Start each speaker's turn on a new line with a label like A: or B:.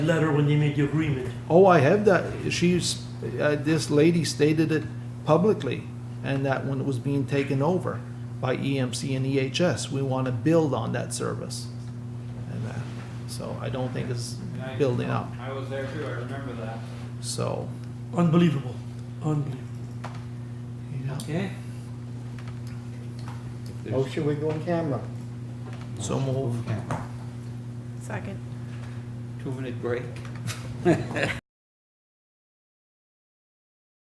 A: letter when they made the agreement.
B: Oh, I have that. She's, uh, this lady stated it publicly, and that when it was being taken over by EMC and EHS, we want to build on that service. And uh, so I don't think it's
C: And I-
B: building up.
C: I was there too, I remember that.
B: So,
A: Unbelievable. Unbelievable.
B: yeah.
C: Okay.
D: Oh, should we go in camera?
B: So move.
E: Second.
F: Two-minute break.